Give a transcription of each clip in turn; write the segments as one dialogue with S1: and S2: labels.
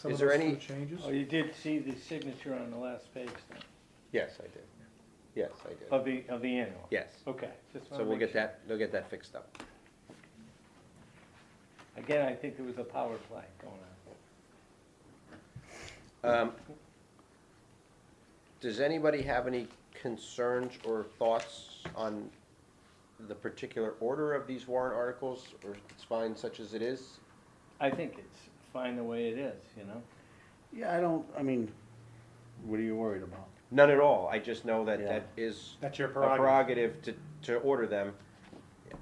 S1: Some
S2: Is
S1: of
S2: there
S1: those
S2: any-
S1: two changes?
S3: Oh, you did see the signature on the last page then,
S2: Yes, I did. Yes, I did.
S3: of the, of the annual?
S2: Yes.
S3: Okay. just wanna
S2: So we'll
S3: make
S2: get
S3: sure.
S2: that, they'll get that fixed up.
S3: Again, I think there was a power play going on.
S2: Um, Does anybody have any concerns or thoughts on the particular order of these warrant articles, or it's fine such as it is?
S3: I think it's fine the way it is, you know?
S4: Yeah, I don't, I mean, what are you worried about?
S2: None at all, I just know that
S4: Yeah.
S2: that is
S1: That's your
S2: a
S1: prerogative.
S2: prerogative to, to order them.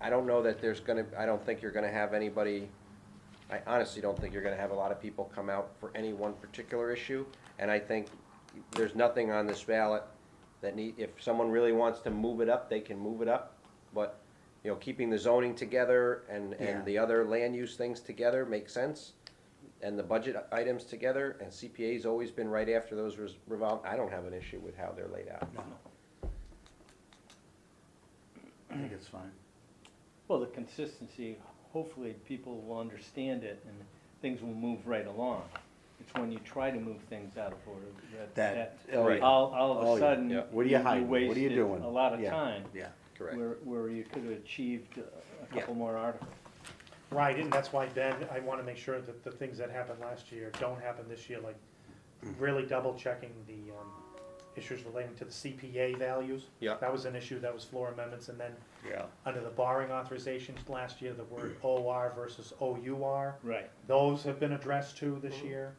S2: I don't know that there's gonna, I don't think you're gonna have anybody, I honestly don't think you're gonna have a lot of people come out for any one particular issue. And I think there's nothing on this ballot that need, if someone really wants to move it up, they can move it up. But, you know, keeping the zoning together and,
S4: Yeah.
S2: and the other land use things together makes sense. And the budget items together, and CPA's always been right after those res- revolve, I don't have an issue with how they're laid out.
S4: I think it's fine.
S3: Well, the consistency, hopefully people will understand it and things will move right along. It's when you try to move things out of order that,
S4: That-
S3: that,
S4: oh,
S2: yeah.
S3: all, all
S4: Oh,
S3: of a
S4: yeah.
S3: sudden,
S2: Yeah.
S4: What are you hiding? What are you
S3: wasted
S4: doing?
S3: a lot of
S4: Yeah.
S3: time.
S4: Yeah.
S2: Correct.
S3: Where, where you could have achieved a- a couple more articles.
S1: Right, and that's why, Ben, I wanna make sure that the things that happened last year don't happen this year, like really double checking the, um, issues relating to the CPA values.
S2: Yeah.
S1: That was an issue, that was floor amendments, and then
S4: Yeah.
S1: under the borrowing authorizations last year, the word OR versus OUR.
S3: Right.
S1: Those have been addressed too this year,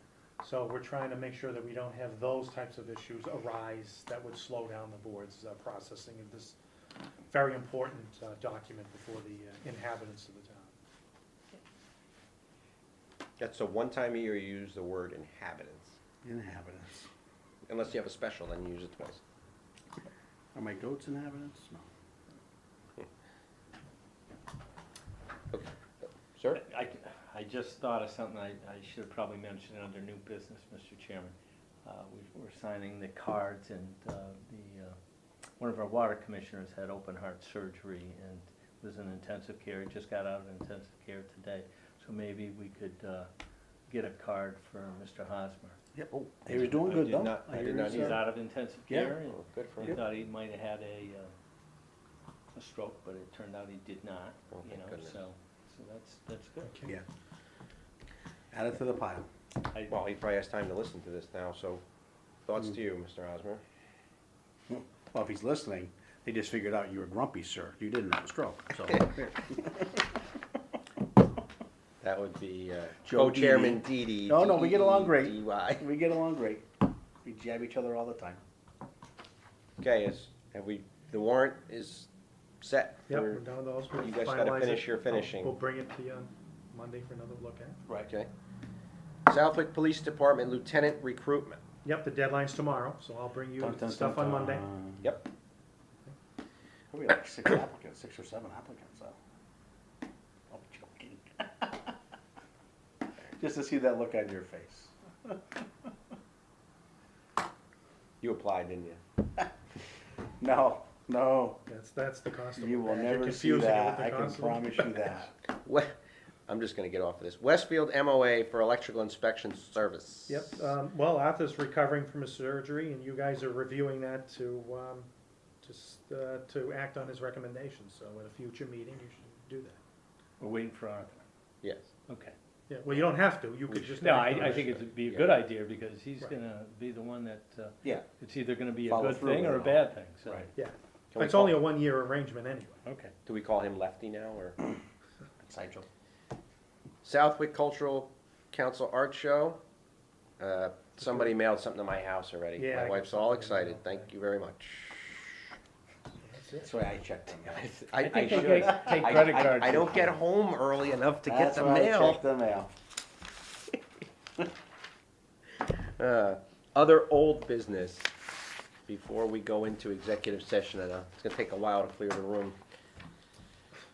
S1: so we're trying to make sure that we don't have those types of issues arise that would slow down the board's uh, processing of this very important uh, document before the uh, inhabitants of the town.
S2: That's the one time a year you use the word inhabitants.
S4: Inhabitants.
S2: Unless you have a special, then you use it twice.
S4: Are my goats inhabitants? No.
S2: Sir?
S3: I, I just thought of something I, I should have probably mentioned under new business, Mr. Chairman. Uh, we- We're signing the cards and uh, the, uh, one of our water commissioners had open heart surgery and was in intensive care, just got out of intensive care today. So maybe we could uh, get a card for Mr. Hosmer.
S4: Yep.
S2: Oh,
S4: He was doing
S2: I
S4: good
S2: did
S4: though.
S2: not- I
S4: hear
S2: did not
S4: he's,
S2: either.
S3: He's
S4: uh,
S3: out of intensive
S4: Yeah.
S3: care and
S2: Oh, Good for
S3: we
S2: him.
S3: thought he might have had a, uh, a stroke, but it turned out he did not,
S2: Oh,
S3: you
S2: thank
S3: know,
S2: goodness.
S3: so, so that's, that's good.
S4: Yeah. Add it to the pile.
S3: I-
S2: Well, he probably has time to listen to this now, so thoughts to you, Mr. Osmer?
S4: Well, if he's listening, they just figured out you were grumpy, sir. You didn't have a stroke, so.
S2: That would be uh,
S4: Joe
S2: co-chairman Dee Dee.
S4: No, no, we get along great.
S2: DDDY.
S4: We get along great. We jab each other all the time.
S2: Okay, is, have we, the warrant is set
S1: Yep, we're
S2: for,
S1: done with those. We'll
S2: you guys gotta
S1: finalize it.
S2: finish your
S1: I'll-
S2: finishing.
S1: We'll bring it to you on Monday for another look at.
S3: Right.
S2: okay? Southwick Police Department Lieutenant Recruitment.
S1: Yep, the deadline's tomorrow, so I'll bring you
S4: Dun, dun,
S1: stuff
S4: dun,
S1: on Monday.
S4: dun.
S2: Yep.
S4: Probably like six applicants, six or seven applicants, so. I'm joking. Just to see that look on your face.
S2: You applied, didn't you?
S4: No, no,
S1: That's, that's the cost of it.
S4: you will
S1: You're
S4: never see
S1: confusing it with
S4: that,
S1: the
S4: I can
S1: cost of it.
S4: promise you that.
S2: We- I'm just gonna get off of this. Westfield MOA for Electrical Inspection Service.
S1: Yep, um, well, Arthur's recovering from his surgery, and you guys are reviewing that to, um, just, uh, to act on his recommendations, so at a future meeting, you should do that.
S3: We're waiting for Arthur.
S2: Yes.
S3: Okay.
S1: Yeah, well, you don't have to, you
S2: We
S1: could just.
S3: No,
S1: act on
S3: I, I
S1: it.
S3: think it'd be a
S2: Yeah.
S3: good idea because he's
S1: Right.
S3: gonna be the one that, uh,
S4: Yeah.
S3: it's either gonna be a
S4: Follow
S3: good
S4: through
S3: thing or a
S4: and
S3: bad thing, so.
S4: Right.
S1: Yeah,
S2: Can we
S1: it's only a
S2: call-
S1: one-year arrangement anyway.
S3: Okay.
S2: Do we call him Lefty now, or?
S4: Side joke.
S2: Southwick Cultural Council Art Show. Uh, Somebody mailed something to my house already.
S1: Yeah, I
S2: My
S1: got
S2: wife's all
S1: something in the
S2: excited.
S1: mail.
S2: Thank you very much.
S1: That's it.
S4: That's why I checked them out.
S2: I, I
S3: think they
S2: should.
S3: take- take
S2: I-
S3: credit
S2: I-
S3: cards.
S2: I don't get home early enough to get
S4: That's
S2: the
S4: why I
S2: mail.
S4: checked the mail.
S2: Uh, Other old business, before we go into executive session, and uh, it's gonna take a while to clear the room.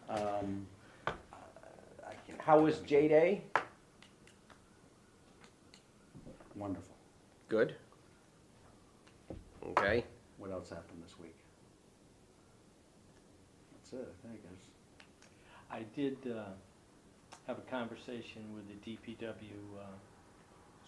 S1: Uh,
S4: Um, I can-
S2: How was J-Day?
S4: Wonderful.
S2: Good. Okay,
S4: What else happened this week? That's it, I think, there's.
S3: I did, uh, have a conversation with the DPW, uh,